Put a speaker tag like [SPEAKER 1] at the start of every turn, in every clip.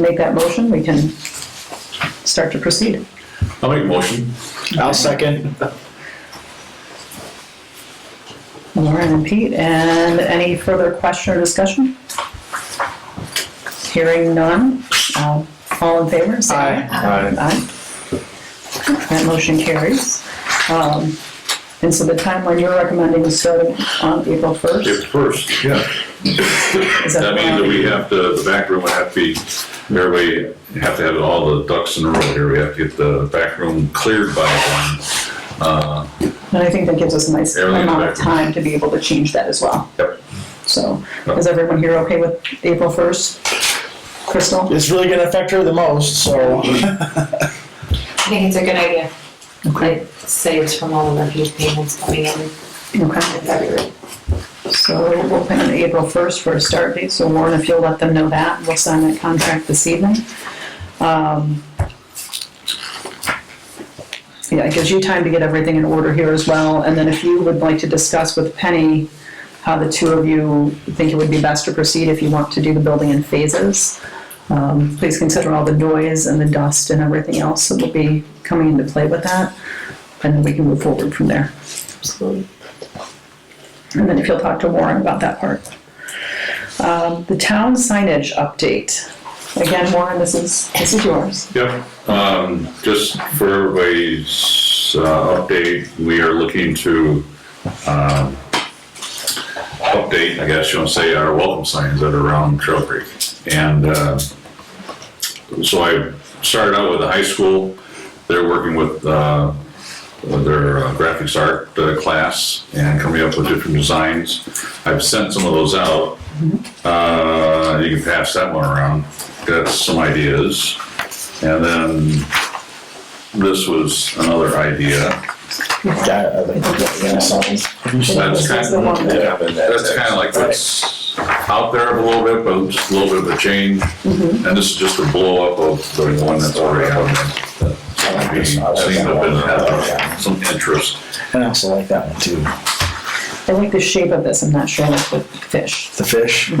[SPEAKER 1] make that motion, we can start to proceed.
[SPEAKER 2] I'll make a motion.
[SPEAKER 3] I'll second.
[SPEAKER 1] Lauren and Pete, and any further question or discussion? Hearing none, um, all in favor, say aye.
[SPEAKER 2] Aye.
[SPEAKER 1] Aye. That motion carries. Um, And so the timeline you're recommending is starting on April 1st?
[SPEAKER 2] It's first, yeah.
[SPEAKER 1] Is
[SPEAKER 2] That means that
[SPEAKER 1] correct?
[SPEAKER 2] we have to, the back room would have to be, everybody have to have all the ducks in a row here. We have to get the back room cleared by one. Uh,
[SPEAKER 1] And I think that gives us a nice
[SPEAKER 2] Everything in the
[SPEAKER 1] amount of
[SPEAKER 2] back room.
[SPEAKER 1] time to be able to change that as well.
[SPEAKER 2] Yep.
[SPEAKER 1] So, is everyone here okay with April 1st? Crystal?
[SPEAKER 3] It's really gonna affect her the most, so.
[SPEAKER 4] I think it's a good idea. It saves from all the huge payments coming in in
[SPEAKER 1] Okay.
[SPEAKER 4] February.
[SPEAKER 1] So we'll plan on April 1st for a start date, so Warren, if you'll let them know that, we'll sign that contract this evening. Um, Yeah, it gives you time to get everything in order here as well, and then if you would like to discuss with Penny how the two of you think it would be best to proceed if you want to do the building in phases, um, please consider all the noise and the dust and everything else that will be coming into play with that, and then we can move forward from there.
[SPEAKER 4] Absolutely.
[SPEAKER 1] And then if you'll talk to Warren about that part. Um, The town signage update. Again, Warren, this is, this is yours.
[SPEAKER 2] Yep, um, just for everybody's, uh, update, we are looking to, um, update, I guess you want to say, our welcome signs that are around Trail Creek. And, uh, so I started out with the high school, they're working with, uh, with their uh, graphics art uh, class and coming up with different designs. I've sent some of those out. Uh, you can pass that one around, got some ideas. And then this was another idea.
[SPEAKER 3] Yeah, I think that- yeah,
[SPEAKER 2] So
[SPEAKER 3] so-
[SPEAKER 2] that's kind
[SPEAKER 1] This is the one
[SPEAKER 2] of,
[SPEAKER 1] that-
[SPEAKER 2] yeah, that's kind of like what's out there a little bit, but just a little bit of a change. And this is just a blow up of the one that's already out there. that's being seen up and has some interest.
[SPEAKER 3] And I also like that one too.
[SPEAKER 1] I like the shape of this, I'm not sure like with fish.
[SPEAKER 3] The fish.
[SPEAKER 2] The,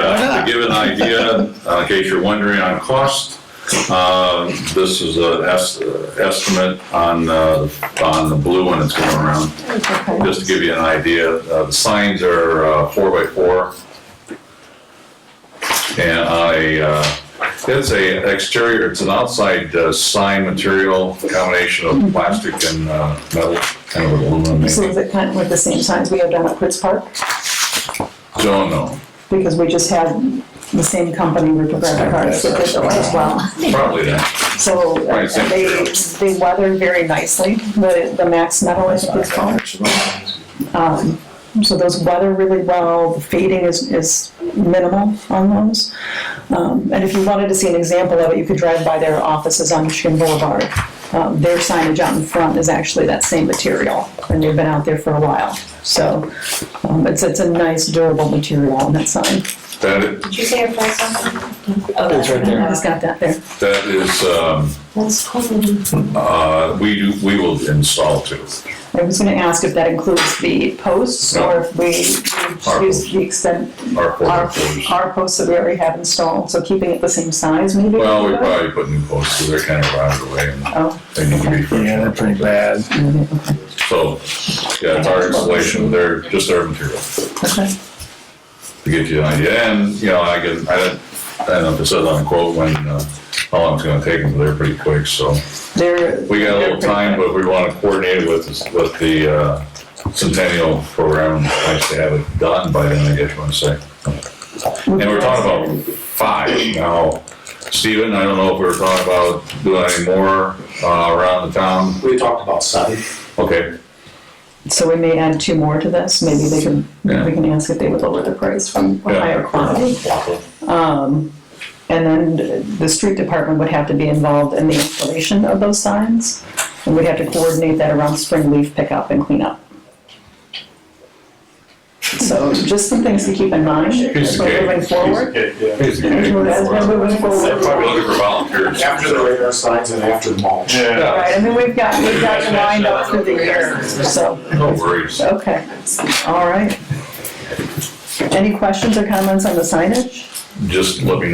[SPEAKER 2] uh, to give an idea, uh, in case you're wondering on cost, uh, this is an estimate on, uh, on the blue one that's going around.
[SPEAKER 1] Okay.
[SPEAKER 2] Just to give you an idea, uh, the signs are uh, four by four. And I, uh, it's a exterior, it's an outside uh, sign material, combination of plastic and uh, metal, kind of aluminum
[SPEAKER 1] So
[SPEAKER 2] maybe.
[SPEAKER 1] is it kind of like the same signs we have down at Ritz Park?
[SPEAKER 2] Don't know,
[SPEAKER 1] Because we just had the same company with the graphic cards that did those as well.
[SPEAKER 2] probably not.
[SPEAKER 1] So uh,
[SPEAKER 2] Right, same
[SPEAKER 1] they,
[SPEAKER 2] material.
[SPEAKER 1] they weathered very nicely, the, the Max Metal, I think it's called. Um, So those weather really well, the fading is, is minimal on those. Um, And if you wanted to see an example of it, you could drive by their offices on Michigan Boulevard. Um, Their signage out in front is actually that same material, and they've been out there for a while. So um, it's, it's a nice durable material on that sign.
[SPEAKER 2] That,
[SPEAKER 4] Did you say your price on that? Oh,
[SPEAKER 3] It's right there.
[SPEAKER 1] I just got that there.
[SPEAKER 2] that is, um,
[SPEAKER 4] That's cool.
[SPEAKER 2] uh, we, do- we will install two.
[SPEAKER 1] I was gonna ask if that includes the posts or if we
[SPEAKER 2] Our
[SPEAKER 1] use the extent,
[SPEAKER 2] Our four
[SPEAKER 1] our,
[SPEAKER 2] by fours.
[SPEAKER 1] our posts that we already have installed, so keeping it the same size maybe?
[SPEAKER 2] Well, we probably put new posts, so they're kind of rotted away and
[SPEAKER 1] Oh,
[SPEAKER 2] they need to be fresh.
[SPEAKER 3] Yeah, they're pretty bad.
[SPEAKER 2] So, yeah, it's our installation, they're just their material.
[SPEAKER 1] okay.
[SPEAKER 2] to get you an idea. And, you know, I can, I don't, I don't know if it says on the quote when, uh, how long it's gonna take them, but they're pretty quick, so.
[SPEAKER 1] They're.
[SPEAKER 2] We got a little time, but we wanna coordinate it with, with the, uh, Centennial Program, nice to have it done by then, I guess you wanna say. And we're talking about five now. Steven, I don't know if we we're talking about doing any more, uh, around the town.
[SPEAKER 5] We talked about sun.
[SPEAKER 2] Okay,
[SPEAKER 1] So we may add two more to this, maybe they can,
[SPEAKER 2] Yeah.
[SPEAKER 1] we can ask if they would lower the price from a
[SPEAKER 2] Yeah.
[SPEAKER 1] higher quantity.
[SPEAKER 5] Well,
[SPEAKER 1] Um, and then the street department would have to be involved in the installation of those signs, and we'd have to coordinate that around spring leaf pickup and cleanup. So just some things to keep in mind as we're moving forward. As we're moving forward.
[SPEAKER 2] probably looking for volunteers.
[SPEAKER 5] After the radar signs and after the mulch.
[SPEAKER 1] Right, I mean, we've got, we've got the wind up through the year, so.
[SPEAKER 2] No worries.
[SPEAKER 1] Okay, all right. Any questions or comments on the signage?
[SPEAKER 2] just let me